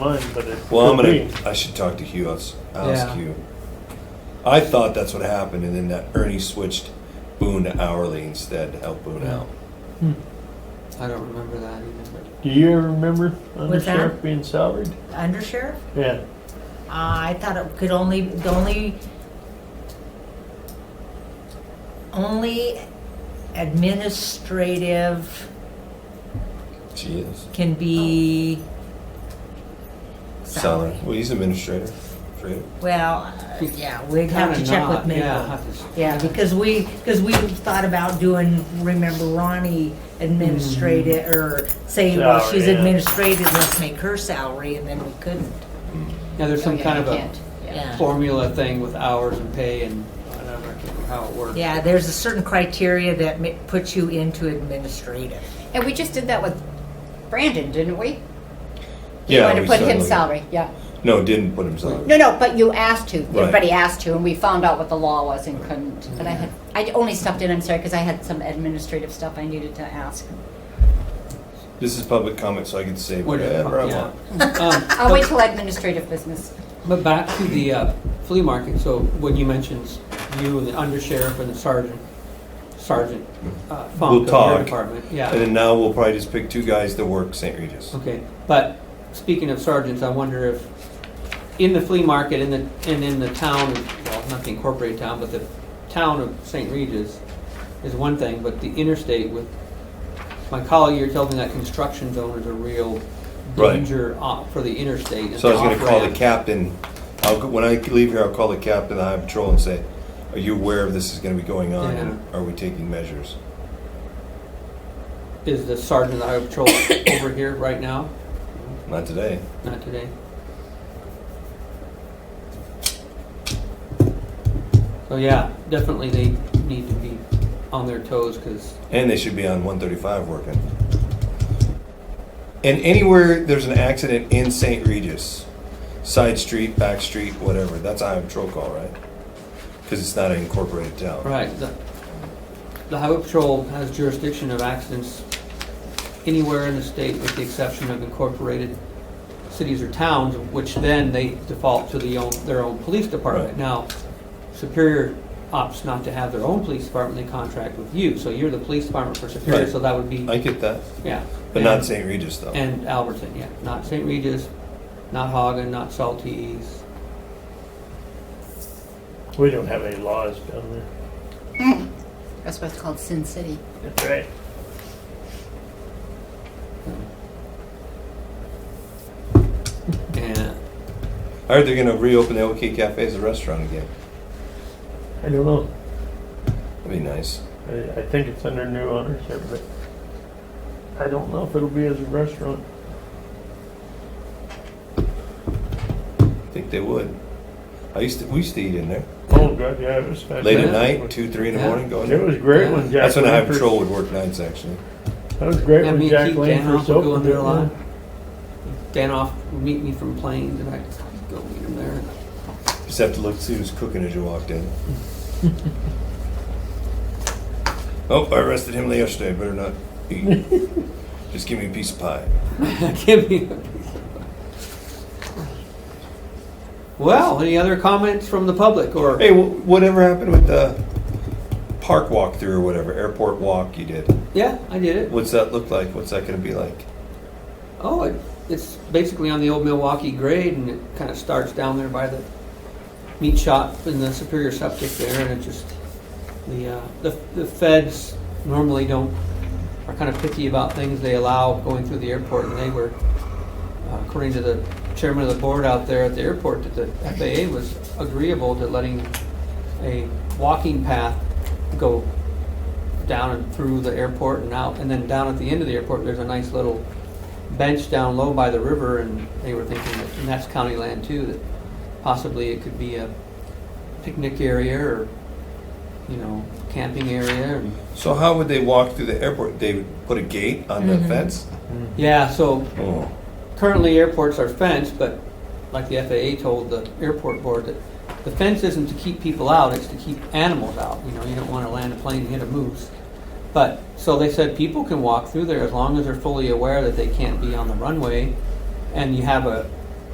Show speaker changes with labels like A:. A: mine, but it
B: Well, I'm
A: could
B: gonna.
A: be.
B: I should talk to Hugh. I'll s- ask
C: Yeah.
B: Hugh. I thought that's what happened, and then that Ernie switched Boone to hourly instead to help Boone out.
C: I don't remember that either.
A: Do you remember
D: What's that?
A: undersheriff being salaried?
D: Undersheriff?
A: Yeah.
D: Uh, I thought it could only, the only, only administrative
B: She is
D: can be
B: salary.
D: salary.
B: Well, he's administrator. Right?
D: Well, uh, yeah, we'd have to
C: Kinda
D: check
C: not,
D: with Mabel.
C: yeah, have to s-
D: Yeah, because we, because we thought about doing, remember Ronnie administrative,
C: Mm-hmm.
D: or say, well,
A: Salary,
D: she's
A: yeah.
D: administrative, let's make her salary, and then we couldn't.
C: Yeah, there's
D: Oh,
C: some
E: Oh, yeah,
C: kind
E: you
C: of a
E: can't. Yeah.
D: Yeah.
C: formula thing with hours and pay and whatever, I can't remember how it works.
D: Yeah, there's a certain criteria that ma- puts you into administrative.
E: And we just did that with Brandon, didn't we?
B: Yeah.
E: You
B: we
E: wanted to put him
B: suddenly-
E: salary, yeah.
B: No, didn't put him salary.
E: No, no, but you asked to.
B: Right.
E: Everybody asked to, and we found out what the law was and couldn't. But I had, I only stepped in, I'm sorry, because I had some administrative stuff I needed to ask.
B: This is public comment, so I can say
C: Whatever,
B: whatever I
C: yeah.
B: want.
C: Um,
E: I'll wait till administrative business.
C: But back to the uh, flea market, so when you mentioned you and the undersheriff and the sergeant, sergeant, uh,
B: We'll
C: Funk of your
B: talk.
C: department,
B: And
C: yeah,
B: then now we'll probably just pick two guys to work St. Regis.
C: okay. But speaking of sergeants, I wonder if, in the flea market, in the, and in the town, well, not the incorporated town, but the town of St. Regis is one thing, but the interstate with, my colleague here tells me that construction zone is a real
B: Right.
C: danger uh, for the interstate. and
B: So I was going to call the
C: off-ramp.
B: captain. I'll, go- when I leave here, I'll call the captain of the Highway Patrol and say, "Are you aware of this is going to be going on? And
C: Yeah.
B: are we taking measures?"
C: Is the sergeant of the highway patrol over here right now?
B: Not today.
C: Not today. So yeah, definitely they need to be on their toes because
B: And they should be on 135 working. And anywhere there's an accident in St. Regis, side street, back street, whatever, that's a highway patrol call, right? Because it's not an incorporated town.
C: right, the, the highway patrol has jurisdiction of accidents anywhere in the state with the exception of incorporated cities or towns, which then they default to the own, their own police department.
B: Right.
C: Now, Superior opts not to have their own police department. They contract with you, so you're the police department for Superior.
B: Right.
C: So that would be
B: I get that,
C: yeah,
B: but not
C: And-
B: St. Regis though.
C: And Alberton, yeah. Not St. Regis, not Hagen, not Salties.
A: We don't have any laws down
E: That's what's called Sin City.
A: there. That's right.
C: And
B: I heard they're going to reopen the OK Cafe as a restaurant again.
A: I don't know.
B: That'd be nice.
A: I, I think it's under new ownership, but I don't know if it'll be as a restaurant.
B: I think they would. I used to, we used to eat in there
A: Oh god, yeah, it was fantastic.
B: late at
C: Yeah.
B: night, two, three in the
C: Yeah.
B: morning, going.
A: It was great when Jack.
B: That's when I have
A: Lanford-
B: patrol would work nights actually.
A: That was great
C: Yeah,
A: when
C: me and
A: Jack
C: Keith
A: Lane
C: Danoff
A: first
C: would go in
A: opened
C: there a lot.
A: it.
C: Danoff would meet me from planes and I'd go meet him there.
B: Just have to look see who's cooking as you walked in. oh, I arrested him yesterday. Better not eat. Just give me a piece of pie.
C: Give me a Well, any other comments from the public or?
B: Hey, wh- whatever happened with the park walkthrough or whatever airport walk you did?
C: Yeah, I did it.
B: What's that look like? What's that going to be like?
C: Oh, it, it's basically on the old Milwaukee grade, and it kind of starts down there by the meat shop and the Superior Septic there, and it just the uh, the, the feds normally don't are kind of picky about things they allow going through the airport, and they were, uh, according to the chairman of the board out there at the airport, that the FAA was agreeable to letting a walking path go down and through the airport and out, and then down at the end of the airport, there's a nice little bench down low by the river, and they were thinking that, and that's county land too, that possibly it could be a picnic area or, you know, camping area. And,
B: So how would they walk through the airport? They would put a gate on the fence.
C: yeah, so
B: Oh,
C: currently airports are fenced, but like the FAA told the airport board that the fence isn't to keep people out, it's to keep animals out. You know, you don't want to land a plane and hit a moose. But, so they said people can walk through there as long as they're fully aware that they can't be on the runway and you have a